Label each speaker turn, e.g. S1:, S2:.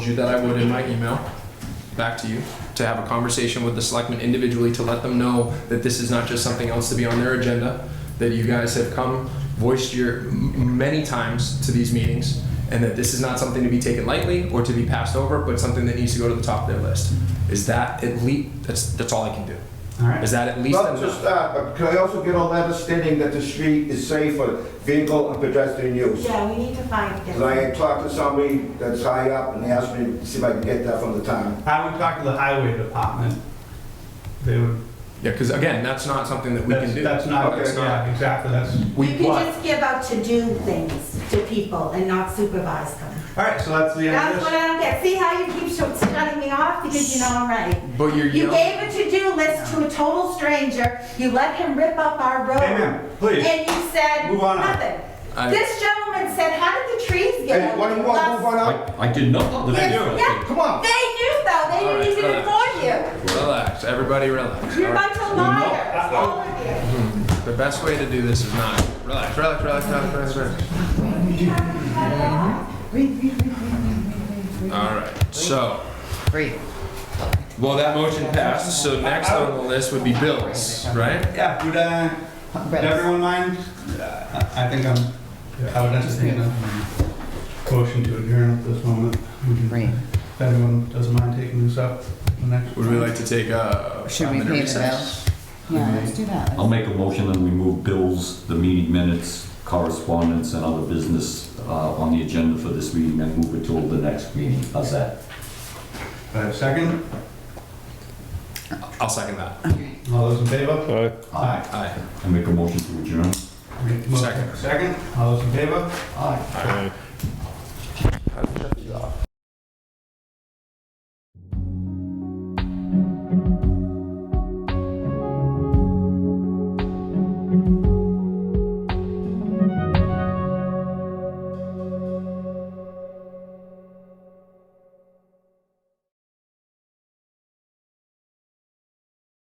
S1: you that I would in my email back to you to have a conversation with the selectmen individually to let them know that this is not just something else to be on their agenda, that you guys have come, voiced your, m- many times to these meetings, and that this is not something to be taken lightly or to be passed over, but something that needs to go to the top of their list. Is that at least, that's, that's all I can do.
S2: All right.
S1: Is that at least
S3: Not
S1: enough?
S3: just that, but can I also get a letter stating that the street is safe for vehicle and pedestrian use?
S4: Yeah, we need to find it.
S3: And I talked to somebody that's high up and they asked me to see if I can get that from the town.
S2: I would talk to the highway department. They would,
S1: Yeah, because again, that's not something that we can
S2: that's,
S1: do.
S2: that's not,
S3: Okay.
S2: yeah, exactly, that's,
S4: You
S1: We,
S4: can just give out to-do things to people and not supervise them.
S2: all right, so that's the end
S4: That's
S2: of
S4: what
S2: this.
S4: I don't get. See how you keep sh- shutting me off because you know I'm right.
S1: but you're
S4: You
S1: yelling,
S4: gave a to-do list to a total stranger, you let him rip up our road.
S2: Hey, ma'am, please.
S4: And you said
S2: Move on.
S4: nothing.
S1: I-
S4: This gentleman said, how did the trees get?
S3: Hey, why don't you want to move on up?
S5: I, I did not know that.
S4: Yes,
S2: do.
S4: yeah.
S3: Come on.
S4: They knew though,
S1: All
S4: they
S1: right,
S4: didn't even
S1: relax.
S4: inform you.
S1: relax, everybody relax. all
S4: You're a
S1: right?
S4: bunch of liars, all of you.
S1: The best way to do this is not relax, relax, relax, relax, relax, relax. All right, so. Great. Well, that motion passed, so next on the list would be bills, right?
S2: Yeah, would, uh, would everyone mind? Uh, I I think I'm, I would entertain a motion to adjourn at this moment. We can-
S6: Right.
S2: If anyone doesn't mind taking this up, the next.
S1: Would we like to take a
S6: Should
S1: five
S6: we
S1: minute
S6: pay the
S1: recess?
S6: bills? Yeah, let's do that.
S5: I'll make a motion and remove bills, the meeting minutes, correspondence, and other business uh, on the agenda for this meeting and move it till the next meeting. How's that?
S2: Uh, second,
S1: I'll second that.
S2: all those in favor? Aye.
S1: Aye.
S5: I make a motion to adjourn.
S2: Make the motion.
S1: Second.
S2: Second, all those in favor? Aye.
S1: Aye.